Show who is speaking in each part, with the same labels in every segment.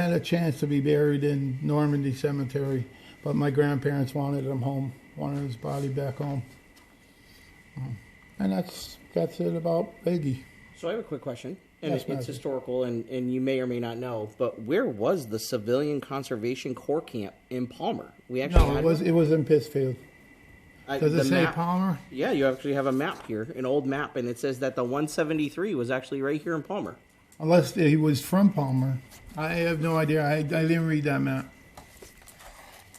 Speaker 1: a chance to be buried in Normandy Cemetery, but my grandparents wanted him home, wanted his body back home. And that's that's it about Iggy.
Speaker 2: So I have a quick question, and
Speaker 1: Yes,
Speaker 2: it-
Speaker 1: Matthew.
Speaker 2: it's historical, and, and you may or may not know, but where was the Civilian Conservation Corps camp in Palmer? We actually
Speaker 1: No, it
Speaker 2: had-
Speaker 1: was it was in Pittsfield.
Speaker 2: I-
Speaker 1: Does it
Speaker 2: the
Speaker 1: say
Speaker 2: map-
Speaker 1: Palmer?
Speaker 2: Yeah, you actually have a map here, an old map, and it says that the 173 was actually right here in Palmer.
Speaker 1: Unless he was from Palmer. I have no idea. I, I didn't read that map.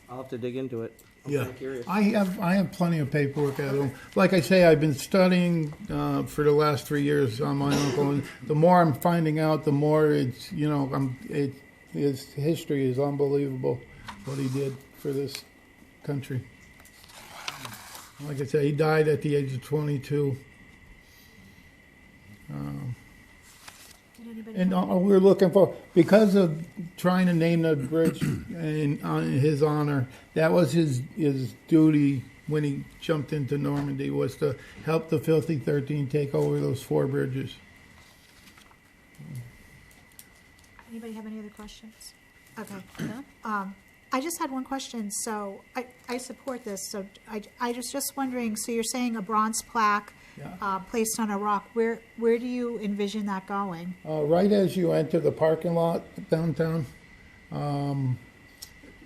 Speaker 2: I'll have to dig into it. I'm
Speaker 1: Yeah,
Speaker 2: kinda curious.
Speaker 1: I have I have plenty of paperwork at home. Like I say, I've been studying uh, for the last three years on my uncle, and the more I'm finding out, the more it's you know I'm it his history is unbelievable what he did for this country. Like I said, he died at the age of 22.
Speaker 3: Did anybody
Speaker 1: And uh, we're looking for, because of trying to name the bridge in, on his honor, that was his, his duty when he jumped into Normandy, was to help the Filthy 13 take over those four bridges.
Speaker 3: anybody have any other questions? Okay. Um, I just had one question. So I, I support this. So I, I was just wondering. So you're saying a bronze plaque
Speaker 1: Yeah.
Speaker 3: uh, placed on a rock. Where where do you envision that going?
Speaker 1: Uh, right as you enter the parking lot downtown, um,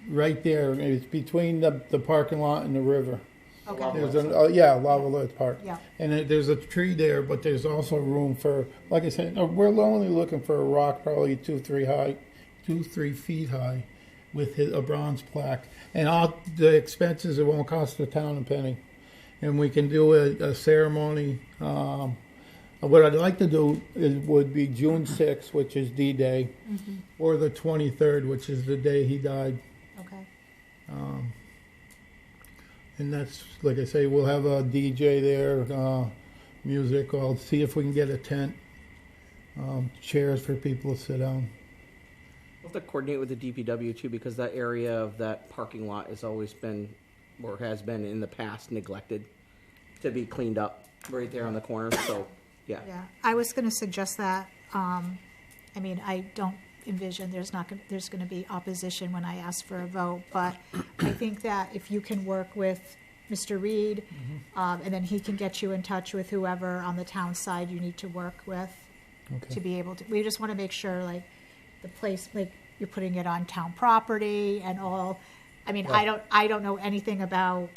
Speaker 1: right there, it's between the, the parking lot and the river.
Speaker 3: Okay.
Speaker 1: There's an, oh, yeah, Lava Lake Park.
Speaker 3: Yeah.
Speaker 1: And it- there's a tree there, but there's also room for, like I said, uh, we're only looking for a rock probably two, three high, two, three feet high with his, a bronze plaque. And all the expenses, it won't cost the town a penny. And we can do a, a ceremony. Um, what I'd like to do is, would be June 6th, which is D-Day, or the 23rd, which is the day he died.
Speaker 3: Okay.
Speaker 1: And that's, like I say, we'll have a DJ there, uh, music. I'll see if we can get a tent, um, chairs for people to sit down.
Speaker 2: We'll have to coordinate with the DPW too, because that area of that parking lot has always been, or has been in the past, neglected to be cleaned up right there on the corner. So, yeah.
Speaker 3: Yeah, I was gonna suggest that, um, I mean, I don't envision there's not gonna, there's gonna be opposition when I ask for a vote, but I think that if you can work with Mr. Reed, um, and then he can get you in touch with whoever on the town side you need to work with to
Speaker 1: Okay.
Speaker 3: be able to, we just wanna make sure, like, the place, like, you're putting it on town property and all. I mean, I don't, I don't know anything about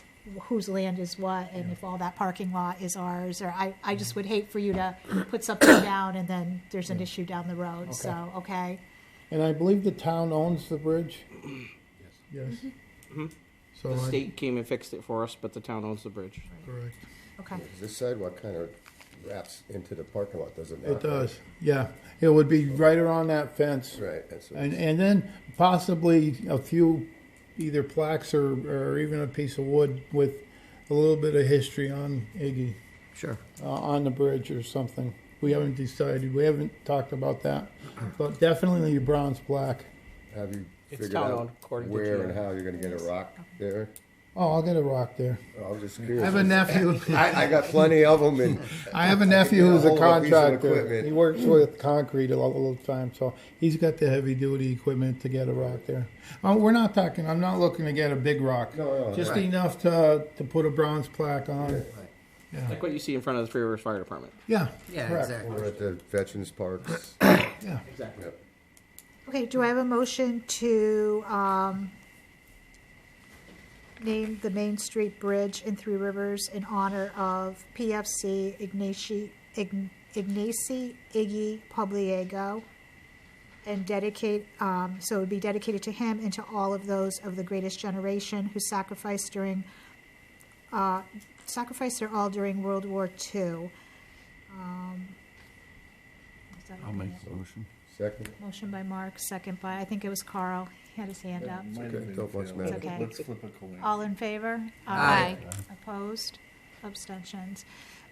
Speaker 3: whose land is what and if all that parking lot is ours, or I, I just would hate for you to put something down and then there's an issue down the road, so, okay?
Speaker 1: And I believe the town owns the bridge? Yes. Yes.
Speaker 3: Mm-hmm.
Speaker 1: So
Speaker 2: Mm-hmm. The
Speaker 1: I,
Speaker 2: state came and fixed it for us, but the town owns the bridge.
Speaker 1: correct.
Speaker 3: Okay,
Speaker 4: This sidewalk kind of wraps into the parking lot, does it not?
Speaker 1: It does, yeah. It would be right around that fence.
Speaker 4: Right, that's what-
Speaker 1: And, and then possibly a few either plaques or, or even a piece of wood with a little bit of history on Iggy.
Speaker 2: Sure.
Speaker 1: uh, on the bridge or something. We haven't decided. We haven't talked about that, but definitely bronze black.
Speaker 4: have you
Speaker 2: It's
Speaker 4: figured
Speaker 2: town
Speaker 4: out
Speaker 2: owned, according to
Speaker 4: where and
Speaker 2: GM.
Speaker 4: how you're gonna get a rock there?
Speaker 1: Oh, I'll get a rock there.
Speaker 4: I was just
Speaker 1: I
Speaker 4: curious.
Speaker 1: have a nephew.
Speaker 4: I, I got plenty of them and
Speaker 1: I have a nephew who's a
Speaker 4: Hold a piece of
Speaker 1: contractor.
Speaker 4: equipment.
Speaker 1: He works with concrete a lot of the time, so he's got the heavy duty equipment to get a rock there. Uh, we're not talking. I'm not looking to get a big rock.
Speaker 4: No, no,
Speaker 1: just
Speaker 4: right.
Speaker 1: enough to to put a bronze plaque on. it.
Speaker 2: Like what you see in front of the Three Rivers Fire Department.
Speaker 1: Yeah.
Speaker 5: Yeah,
Speaker 1: correct.
Speaker 5: exactly.
Speaker 4: we're at the veterans parks.
Speaker 1: Yeah.
Speaker 2: Exactly.
Speaker 4: Yep.
Speaker 3: okay, do I have a motion to, um, name the Main Street Bridge in Three Rivers in honor of PFC Ignacy, Ign- Ignacy Iggy Pobliego? and dedicate, um, so it would be dedicated to him and to all of those of the greatest generation who sacrificed during, uh, sacrificed their all during World War II. Um, is that okay?
Speaker 6: motion.
Speaker 4: Second,
Speaker 3: Motion by Mark, second by, I think it was Carl, he had his hand up.
Speaker 4: okay, don't much
Speaker 3: It's
Speaker 4: matter.
Speaker 3: okay.
Speaker 6: Let's flip a coin.
Speaker 3: All in favor?
Speaker 5: Aye.
Speaker 3: Opposed? Abstentions?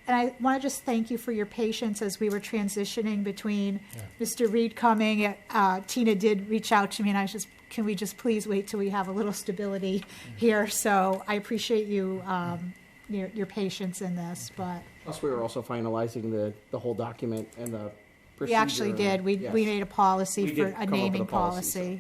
Speaker 3: And I want to just thank you for your patience as we were transitioning between Mr. Reed coming. Uh, Tina did reach out to me, and I was just, can we just please wait till we have a little stability
Speaker 6: Mm-hmm.
Speaker 3: here? So I appreciate you, um, your, your patience in this, but
Speaker 2: Plus, we were also finalizing the, the whole document and the procedure.
Speaker 3: we actually did. We, we
Speaker 2: Yes.
Speaker 3: made a policy
Speaker 2: We
Speaker 3: for
Speaker 2: did come up
Speaker 3: a
Speaker 2: with a
Speaker 3: naming
Speaker 2: policy, so.
Speaker 3: policy.